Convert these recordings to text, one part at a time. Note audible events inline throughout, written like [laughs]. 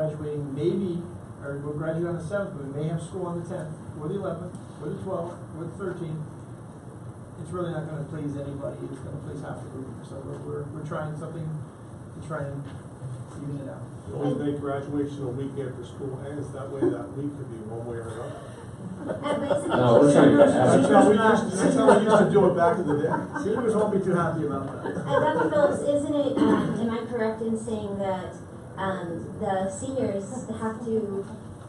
graduating maybe, or will graduate on the seventh, but we may have school on the tenth, or the eleventh, or the twelfth, or the thirteenth. It's really not gonna please anybody, it's gonna please half the group, so we're, we're, we're trying something to try and even it out. Always make graduation a week after school ends, that way that week could be one way or another. And basically. No, we're trying to get That's Seniors- how we used, to- that's how we used to do it back in the day. Seniors won't be too happy about that. And Dr. Phillips, isn't it, um, am I correct in saying that, um, the seniors have to,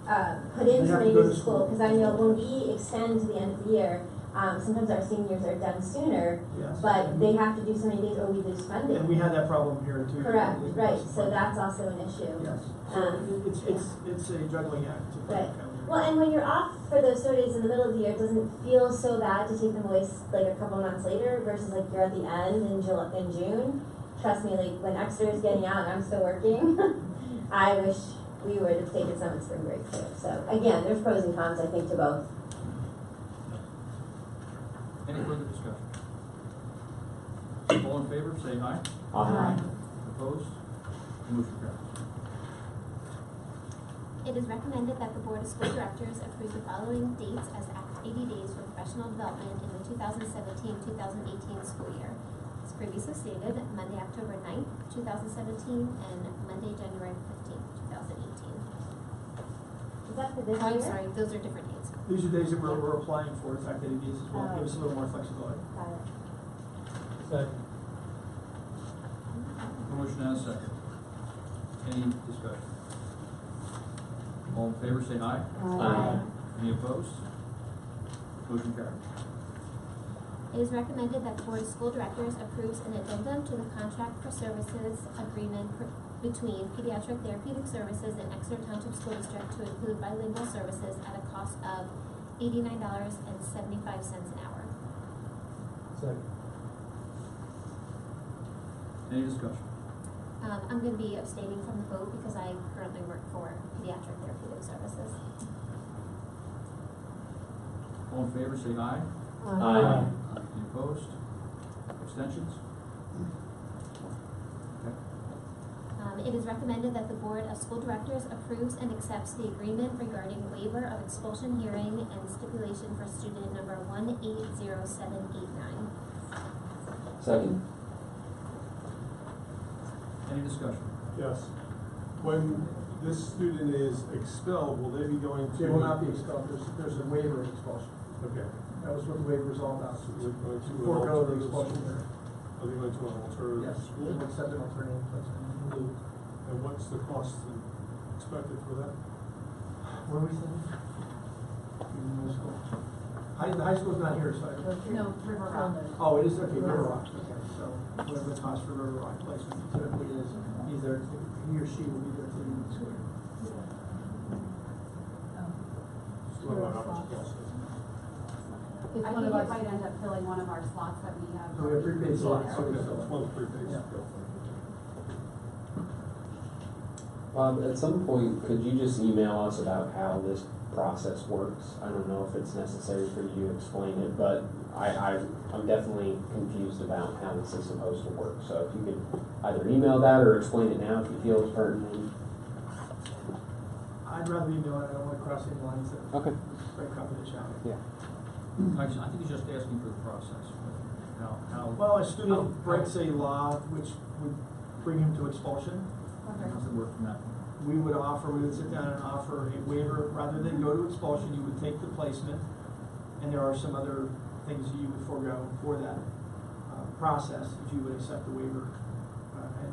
uh, put in They have somebody to go to to school? school. Because I know when we extend to the end of the year, um, sometimes our seniors are done sooner, Yes. but they have to do so many days or we lose And we funding. had that problem here too. Correct, right, so that's also an issue. Yes, so it's, it's, it's a juggling act. to Right. come. Well, and when you're off for those snow days in the middle of the year, it doesn't feel so bad to take them away s- like a couple months later versus like you're at the end in July, in June. Trust me, like when Exeter is getting out and I'm still working, [laughs] I wish we would have taken some in spring break too. So again, there's pros and cons, I think, to both. Any further discussion? All in favor, say aye. Aye. Opposed? Motion carries. It is recommended that the Board of School Directors approve the following dates as Act 80 days for professional development in the 2017-2018 school year. As previously stated, Monday, October 9th, 2017, and Monday, January 15th, 2018. Is that for this Oh, I'm year? sorry, those are different dates. These are days that we're, we're applying for, in fact, that it is as well, give us a little more flexibility. Got it. Motion and a second. Any discussion? All in favor, say aye. Aye. Any opposed? Motion carries. It is recommended that the Board of School Directors approves an addendum to the contract for services agreement pr- between Pediatric Therapeutic Services and Exeter Township School District to include bilingual services at a cost of eighty-nine dollars and seventy-five cents an hour. Any discussion? Um, I'm gonna be abstaining from the vote because I currently work for Pediatric Therapeutic Services. All in favor, say aye. Uh, Aye. Any opposed? Abstentions? Okay. Um, it is recommended that the Board of School Directors approves and accepts the agreement regarding waiver of expulsion hearing and stipulation for student number one eight zero seven eight nine. Second. Any discussion? Yes. When this student is expelled, will they be going to? They will not be expelled, there's, there's a waiver of expulsion, Okay. that was what the waiver was all about. So they're going to an Forego the expulsion alternative school. there. Are they going to an alternative Yes, school? we'll accept an uh, alternative placement in lieu. And what's the cost expected for that? Where are we sitting? In the middle school. High, the high school's not here, so I. No, River Rock. Oh, it is, okay, River Rock, okay, so whatever the cost for River Rock placement typically is, he's there, he or she will be there till the end of the school. year. Just wondering how much it costs. I think it might end up filling one of our slots that we have. So Oh, we have prepaid slots, so Okay, we that's fill one free thing. Yeah. Bob, at some point, could you just email us about how this process works? I don't know if it's necessary for you to explain it, but I, I, I'm definitely confused about how this is supposed to work. So if you could either email that or explain it now if you feel it's pertinent. it. I'd rather be doing, it. I don't wanna cross any lines that, Okay. that confidentiality. I just- I think he's just asking for the process. How, how? Well, a student breaks a law which would bring him to expulsion, How's the word from that? we would offer, we would sit down and offer a waiver, rather than go to expulsion, you would take the placement, and there are some other things that you would forego for that uh, process, if you would accept the waiver. Uh, And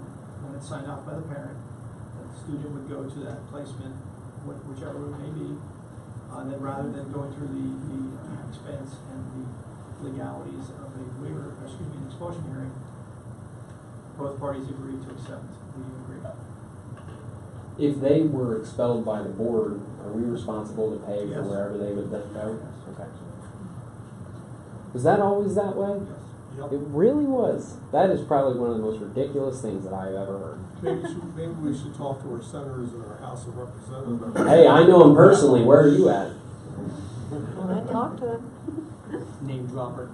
when it's signed off by the parent, the student would go to that placement, wh- whichever it may be, uh, and then rather than going through the, the uh, expense and the legalities of a waiver, excuse me, an expulsion hearing, both parties agree to accept the agreement. If they were expelled by the board, are we responsible to pay for Yes. wherever they would then go? Okay. Was that always that way? Yes. Yep. It really was. That is probably one of the most ridiculous things that I've ever heard. Maybe, we should- maybe we should talk to our senators and our House of Representatives. Hey, I know him personally. Where are you at? Name dropper.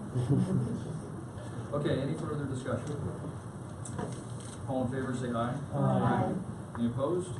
Okay, any further discussion? All in favor, say aye. Aye. Any opposed?